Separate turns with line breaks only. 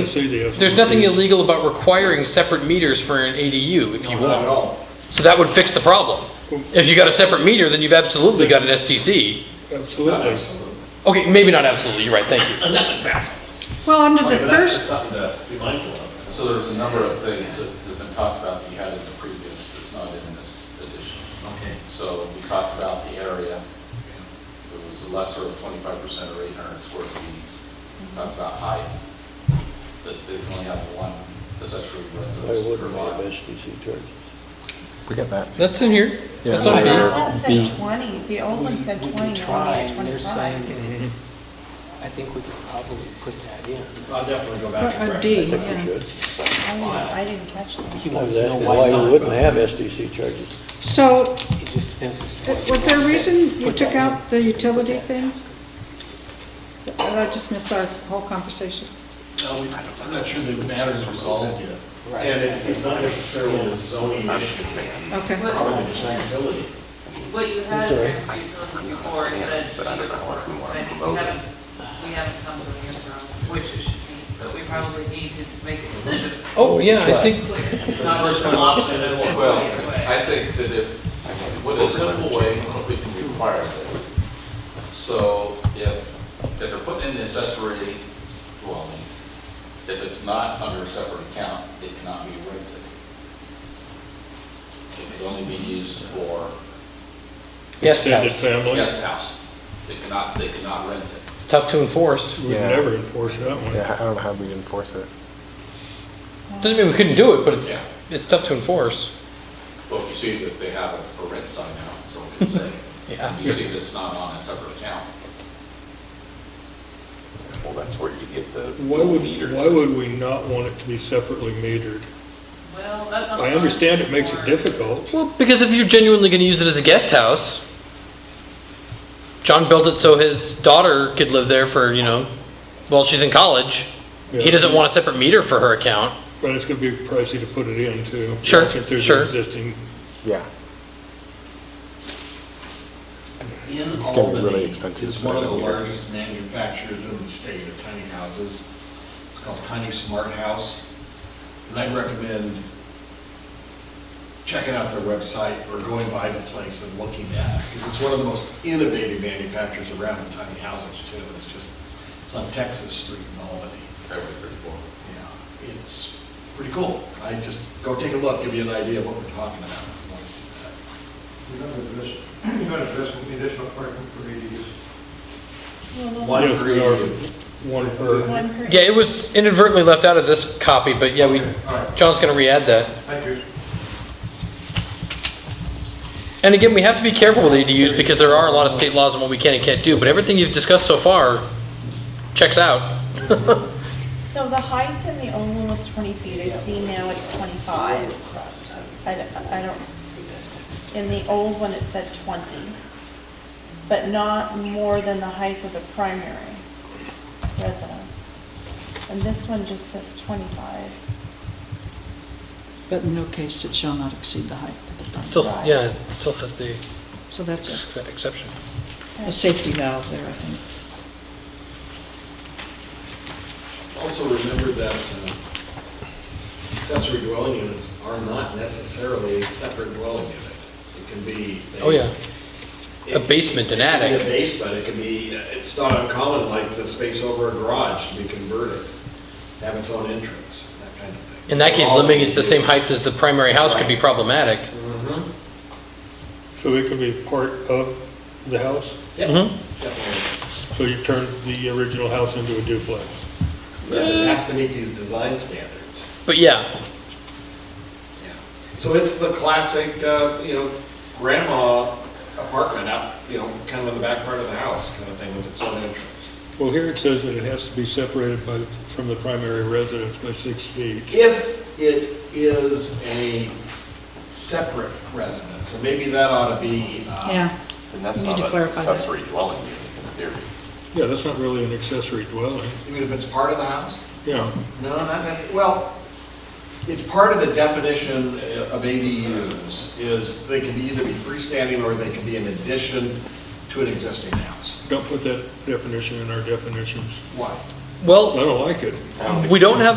The city has-
There's nothing illegal about requiring separate meters for an ADU if you
No, Not at
want.
all.
So that would fix the problem. If you got a separate meter, then you've absolutely got an STC.
Not
Absolutely.
absolutely.
Okay, maybe not absolutely, you're right, thank you.
Well, under
Okay,
the
but that's
first,
something to be mindful of.
So there's a number of things that have been talked about that you had in the previous, that's not in this edition.
Okay.
So we talked about the area, it was a lesser of twenty-five percent or eight hundred square feet. We Talked about height, that they can only have one accessory
They
residence per
wouldn't have
lot.
SDC charges.
We got that.
That's in here.
Yeah,
That's on
no,
here.
you're-
That
be-
said 20, the old one said 20,
We
now
can
it's
try, and they're
25.
saying, "Eh, I think we could probably put that in.
I'll definitely go back and
uh,
correct
D,
this.
I
yeah.
think we should.
I didn't- I didn't catch that.
He
I
wants
was
to know
asking
why it's
why we
not.
wouldn't have SDC charges.
So,
It just depends as to
uh,
what
was
you
there a
want to
reason you
put
took
that in.
out the utility thing? Did I just miss our whole conversation?
No, we- I'm not sure the matter is resolved yet.
Right.
And it- it's not necessarily a zoning issue,
Okay.
probably the liability.
What you had in your brief before is that either or, I think we haven't, we haven't come to an answer on which it should be, but we probably need to make a decision.
Oh, yeah, I think,
Clear. It's not just one option, and we'll
Well,
go either way.
I think that if, what a simple way is if we can require that. So if, if they're putting in the accessory dwelling, if it's not under a separate account, it cannot be rented. It can only be used for
yes,
Extended
it's
family,
guest house. They cannot, they cannot rent it.
tough to enforce.
we'd
Yeah.
never enforce that one.
Yeah, I don't know how we enforce it.
Doesn't mean we couldn't do it, but it's,
Yeah.
it's tough to enforce.
Well, you see that they have a for rent sign now, so we can say,
Yeah.
you see that it's not on a separate account.
Well, that's where you get the
Why would, why would we not want it to be separately metered?
Well, that's not.
I understand it makes it
Or-
difficult.
Well, because if you're genuinely gonna use it as a guest house, John built it so his daughter could live there for, you know, while she's in college. He
Yeah.
doesn't want a separate meter for her account.
But it's gonna be pricey to put it in too.
Sure,
Since there's
sure.
an existing,
Yeah,
In
gonna be really
Albany,
expensive
is
to
one of the
live in here.
largest manufacturers in the state of tiny houses. It's called Tiny Smart House. And I recommend checking out their website or going by the place and looking at it. Because it's one of the most innovative manufacturers around in tiny houses too. It's just, it's on Texas Street in Albany.
Every three, four.
Yeah, it's pretty cool. I just, go take a look, give you an idea of what we're talking about. if you want to see that.
You're not addressing, you're not addressing the additional parking for ADUs.
One
Yes,
for
we are.
you.
one per,
One per-
Yeah, it was inadvertently left out of this copy, but yeah, we, John's gonna re-add that.
Thank you.
And again, we have to be careful with ADUs because there are a lot of state laws on what we can and can't do, but everything you've discussed so far checks out.
So the height in the old one was 20 feet, I see now it's 25. I d- I don't, in the old one it said 20, but not more than the height of the primary residence. And this one just says 25.
But in no case, it shall not exceed the height of the
Still, yeah, still has the
So that's
ex- exception.
a safety valve there, I think.
Also remember that uh, accessory dwelling units are not necessarily a separate dwelling unit. It can be.
Oh, yeah.
it-
A basement, an
It
attic.
can be a basement, it can be, uh, it's not uncommon like the space over a garage to be converted, have its own entrance, that kind of thing.
In that case,
All
limiting it to the same
individual-
height Mm-hmm. as the primary house could be problematic.
Mhm.
so it could be part of the house?
Yep,
Mhm.
definitely.
So you turn the original house into a duplex?
But It has to meet these design standards.
But yeah,
Yeah. So it's the classic, uh, you know, grandma apartment out, you know, kind of in the back part of the house kind of thing with its own entrance.
Well, here it says that it has to be separated by, from the primary residence by six feet.
If it is a separate residence, so maybe that ought to be, uh,
Yeah,
And
that's Need not to an clarify that. accessory
dwelling unit in theory.
Yeah, that's not really an accessory dwelling,
even if it's part of the house?
yeah.
No, not necessarily, well, it's part of the definition uh, of ADUs, is they can either be freestanding or they can be in addition to an existing house.
Don't put that definition in our definitions.
Why?
Well.
I don't like it.
We don't have a